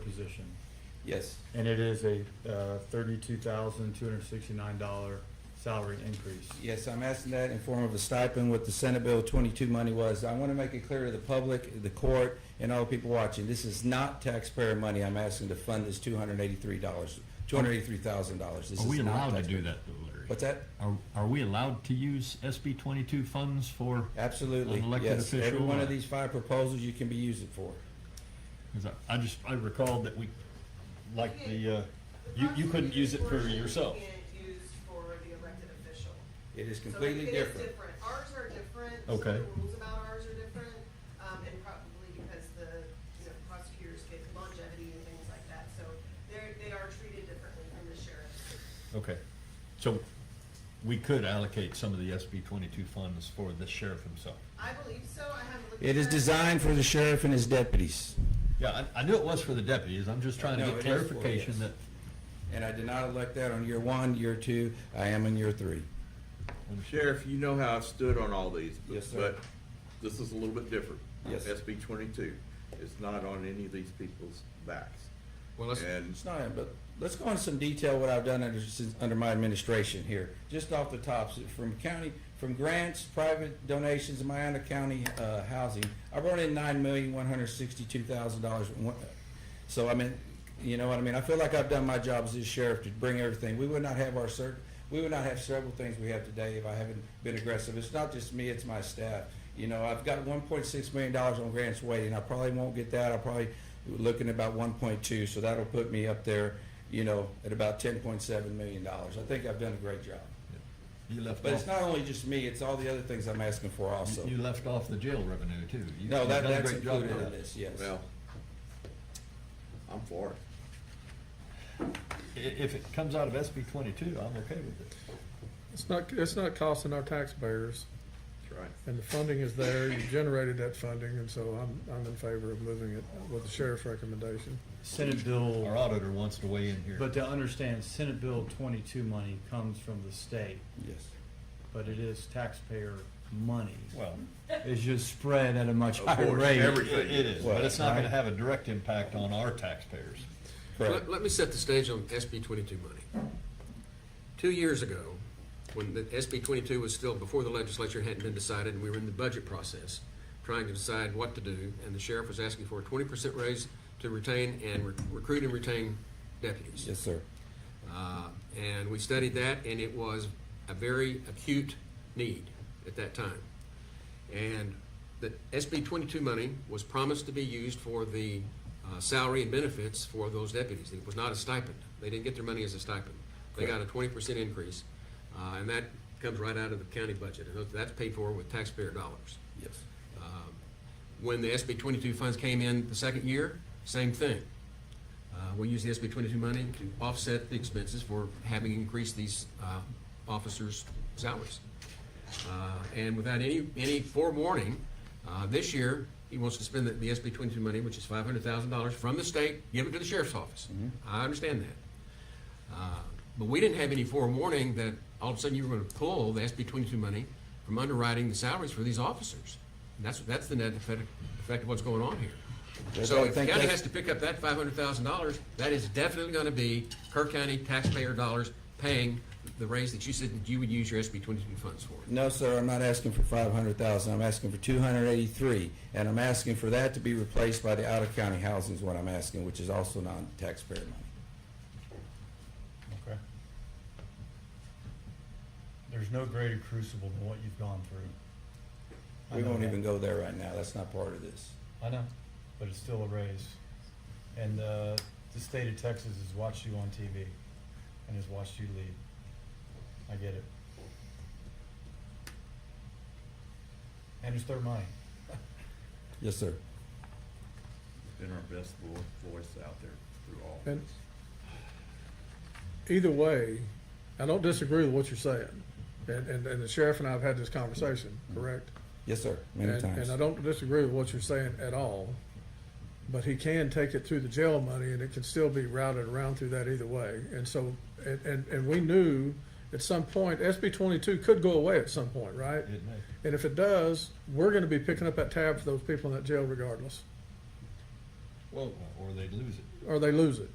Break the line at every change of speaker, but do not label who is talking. position.
Yes,
And it is a uh, $32,269 salary increase.
yes, I'm asking that in form of a stipend what the Senate Bill 22 money was. I want to make it clear to the public, the court, and all the people watching, this is not taxpayer money. I'm asking to fund this $283, $283,000. This
Are we
is not
allowed to
taxpayer-
do that though, Larry?
What's that?
Are, are we allowed to use SB twenty-two funds for,
Absolutely,
An elected
yes. Every
official
one
or-
of these five proposals you can be using for.
'cause I- I just, I recalled that we, like the, uh, you, you couldn't use it for yourself.
You can't use for the elected official.
It is
So it-
completely
It is
different.
different. Ours are different.
Okay.
Some of the rules about ours are different, um, and probably because the, you know, prosecutors get longevity and things like that, so they're, they are treated differently from the sheriff.
Okay, so we could allocate some of the SB twenty-two funds for the sheriff himself.
I believe so. I haven't looked.
It
at
is
that.
designed for the sheriff and his deputies,
Yeah, I, I knew it was for the deputies, I'm just trying to
No, it
get
is for,
clarification
yes.
that
and I did not elect that on year one, year two, I am in year three.
Sheriff, you know how I've stood on all these. but-
Yes, sir.
But this is a little bit different.
Yes.
SB twenty-two is not on any of these people's backs.
Well, let's,
And
It's not, but let's go into some detail what I've done under, since- under my administration here, just off the tops, from county, from grants, private donations, and my own county, uh, housing. I brought in nine million, one hundred sixty-two thousand dollars. So I mean, you know what I mean? I feel like I've done my job as this sheriff to bring everything. We would not have our cert, we would not have several things we have today if I haven't been aggressive. It's not just me, it's my staff. You know, I've got one point six million dollars on grants waiting. I probably won't get that. I'll probably looking at about one point two, so that'll put me up there, you know, at about ten point seven million dollars. I think I've done a great job.
you left
But it's
off,
not only just me, it's all the other things I'm asking for also.
you left off the jail revenue too. You-
No,
you've
that,
done a
that's
great job
included
with
in
that.
this, yes.
Well, I'm for it.
I- If it comes out of SB twenty-two, I'm okay with it.
It's not, it's not costing our taxpayers,
That's right.
and the funding is there, you generated that funding, and so I'm, I'm in favor of moving it with the sheriff's recommendation.
Senate
Our
Bill,
auditor wants to weigh in here.
but to understand, Senate Bill 22 money comes from the state,
Yes.
but it is taxpayer money.
Well,
It's just spread at a much
Of
higher
course,
rate.
it
everything.
it is, but it's not
Right.
gonna have a direct impact on our taxpayers.
Correct.
let, let me set the stage on SB twenty-two money. Two years ago, when the SB twenty-two was still before the legislature hadn't been decided, and we were in the budget process, trying to decide what to do, and the sheriff was asking for a twenty percent raise to retain and re- recruit and retain deputies.
Yes, sir.
Uh, And we studied that, and it was a very acute need at that time. And the SB 22 money was promised to be used for the uh, salary and benefits for those deputies. It was not a stipend. They didn't get their money as a stipend. They got a 20% increase, uh, and that comes right out of the county budget. And that's paid for with taxpayer dollars.
Yes.
Um, When the SB 22 funds came in the second year, same thing. Uh, We used the SB 22 money to offset the expenses for having increased these uh, officers' salaries. Uh, And without any, any forewarning, uh, this year, he wants to spend the- the SB 22 money, which is $500,000 from the state, give it to the sheriff's office.
Mm-hmm.
I understand that. Uh, But we didn't have any forewarning that all of a sudden you were going to pull the SB 22 money from underwriting the salaries for these officers. And that's, that's the net effect effect of what's going on here.
Yes,
So
I
if the
think
county
that's-
has to pick up that $500,000, that is definitely going to be Kirk County taxpayer dollars paying the raise that you said that you would use your SB 22 funds for.
No, sir, I'm not asking for five hundred thousand, I'm asking for two hundred eighty-three, and I'm asking for that to be replaced by the out-of-county housing is what I'm asking, which is also non-taxpayer money.
Okay. There's no greater crucible than what you've gone through. I
We
know
won't
that.
even go there right now, that's not part of this.
I know, but it's still a raise. And uh, the state of Texas has watched you on TV and has watched you lead. I get it. And it's their money.
Yes, sir.
Been our best vo- voice out there through all
And-
this.
Either way, I don't disagree with what you're saying, and, and, and the sheriff and I have had this conversation, correct?
Yes, sir, many
And-
times.
And I don't disagree with what you're saying at all, but he can take it through the jail money, and it can still be routed around through that either way. And so, and, and, and we knew at some point, SB twenty-two could go away at some point, right?
It may.
And if it does, we're gonna be picking up that tab for those people in that jail regardless.
Well, or they'd lose it.
or they lose it.